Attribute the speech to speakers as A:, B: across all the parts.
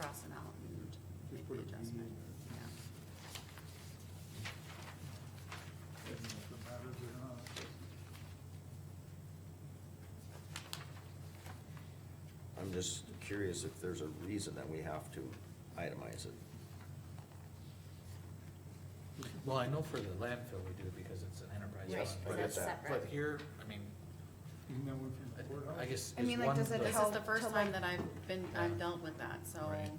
A: crossing out and make the adjustment, yeah.
B: Doesn't know if it matters or not.
C: I'm just curious if there's a reason that we have to itemize it.
D: Well, I know for the landfill we do because it's an enterprise
C: Yes,
D: fund.
C: I
D: but-
C: get that's that.
D: But here, I mean,
B: Even that one from the courthouse.
D: I- I guess.
A: I mean,
D: is
A: like,
D: one-
A: does it
D: the-
A: This is
E: help
A: the first
E: to,
A: time
E: like-
A: that I've been, I've dealt with that, so.
D: Right.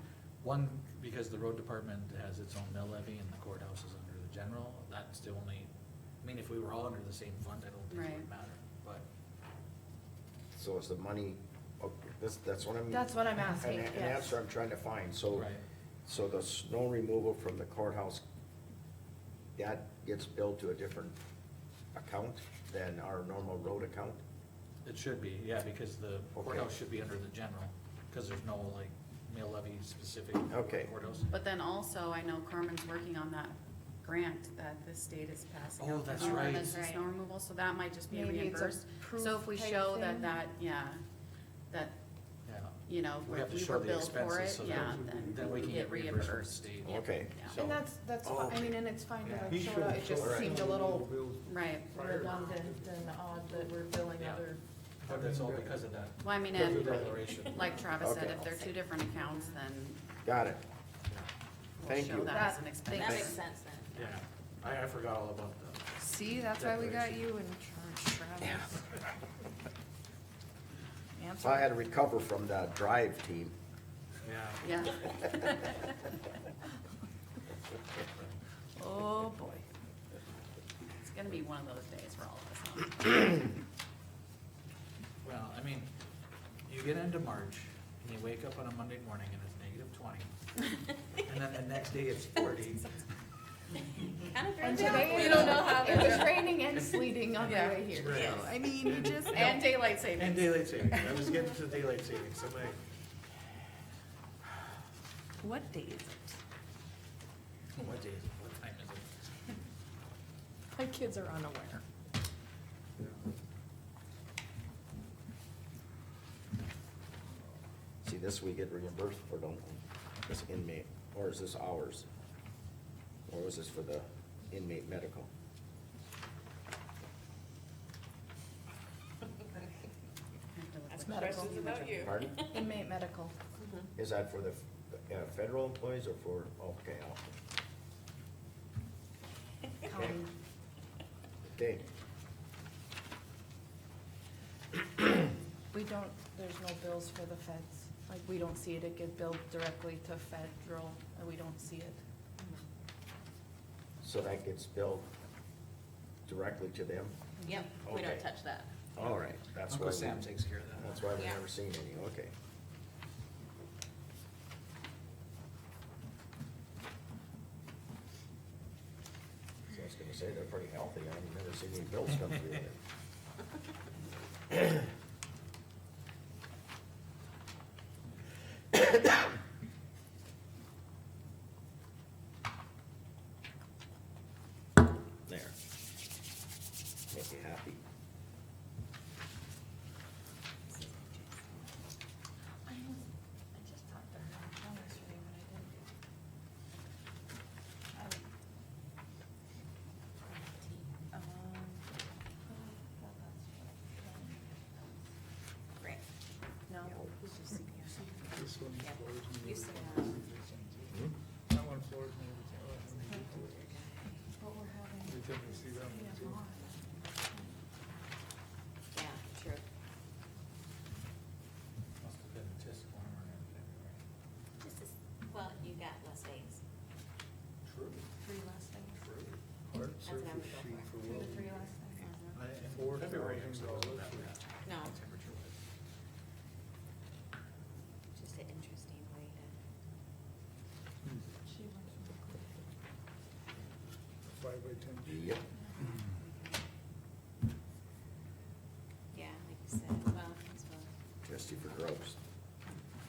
D: One, because the road department has its own mill levy and the courthouse is under the general, that's the only, I mean, if we were all under the same fund, I don't think it
A: Right.
D: would matter, but.
C: So is the money, okay, that's, that's what I'm.
E: That's what I'm asking,
C: An, an
E: yes.
C: answer I'm trying to find, so.
D: Right.
C: So the snow removal from the courthouse, that gets billed to a different account than our normal road account?
D: It should be, yeah, because the courthouse should be under the general, because there's no like mill levy specific for the
C: Okay.
D: courthouse.
A: But then also, I know Carmen's working on that grant that the state is passing.
D: Oh,
A: out for
D: that's
A: snow
D: right.
A: ordinance and Snow removal, so that might just be
E: Maybe it's a
A: reimbursed. So if we
E: proof type
A: show that
E: thing?
A: that, yeah, that,
D: Yeah.
A: you know,
D: We have to
A: we
D: show
A: were
D: the
A: billed for
D: expenses
A: it,
D: so
A: yeah,
D: that
A: then
D: then we can
A: get
D: get reimbursed from the
A: reimbursed.
D: state.
A: Yeah,
C: Okay.
A: yeah.
D: So-
E: And that's, that's,
C: Oh,
E: fine. I
C: okay.
E: mean, and it's fine that
B: He
E: it showed
B: should've
E: up, it just
B: showed
C: Alright.
E: seemed a
B: some
E: little
B: bills
A: Right,
B: prior.
E: redundant and odd that we're billing
D: Yeah.
E: other.
D: But that's all because of that.
A: well, I mean,
D: Because of
A: and
D: the declaration.
A: like Travis said,
C: Okay.
A: if they're two different accounts, then
C: Got it.
A: we'll
C: Thank
A: show
C: you.
A: that as an
E: That-
A: expense.
C: Thank-
F: sense then.
D: Yeah, I, I forgot all about that.
E: See, that's
D: why we got
E: you in charge, Travis.
C: So I had to recover from the drive team.
D: Yeah.
A: Yeah,
E: Oh, boy.
A: it's gonna be one of those days for all of us. huh?
D: Well, I mean, you get into March and you wake up on a Monday morning and it's negative twenty. And then the next day it's forty.
F: Kind of
E: And
F: throws me off.
E: today,
F: We
E: it
F: don't know how they're
E: was raining and sleeting on the
A: Yeah.
E: way here,
D: Right.
E: so, I mean, you just.
A: And daylight savings.
D: And daylight savings, I was getting to daylight savings, I'm like,
E: What day is it?
D: what day is it, what time is it?
E: My kids are unaware.
C: See, this we get reimbursed for, don't we? This inmate, or is this ours? Or was this for the inmate medical?
A: I have to look
F: Ask
A: like-
F: questions about you.
C: Pardon?
E: Inmate medical.
C: Is that for the, uh, federal employees or for, okay, I'll-
E: County.
C: okay.
E: We don't, there's no bills for the feds, like, we don't see it, it get billed directly to federal, and we don't see it.
C: So that gets billed directly to them?
F: Yep, we
C: Okay.
F: don't touch that.
C: All right, that's why.
D: Uncle
C: we-
D: Sam takes care of that.
C: That's why we've
F: Yeah.
C: never seen any, okay. So I was gonna say, they're pretty healthy, I've never seen any bills come through there. There. Make you happy.
E: I just talked to her on the phone yesterday, but I didn't.
F: Right.
E: No.
B: This one
F: Yeah.
B: floors me
F: You
B: every
F: said,
B: time.
F: um,
C: Hmm?
B: That one floors me every time.
E: But we're
B: Every
E: having.
B: time I see that one too.
F: Yeah, true.
D: Must have been just warmer in February.
F: This is, well, you got less days,
D: True.
F: three less days.
D: True.
B: Hard
F: That's what I would
B: surface
F: go
B: sheet for
F: for.
B: welding.
F: Mhm.
D: I,
B: Four
D: February
B: thousand
D: actually wasn't that
B: dollars.
D: bad.
F: No,
D: Temperature was.
F: just an interesting way to,
B: Five by ten.
C: Yep.
F: yeah, like you said, well, as well.
C: Trustee for Groves.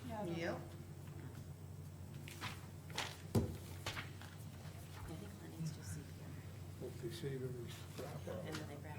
A: Yep.
F: I think Lennox just see here.
B: Hope they shave every scrap
F: And then
B: out.
F: they grab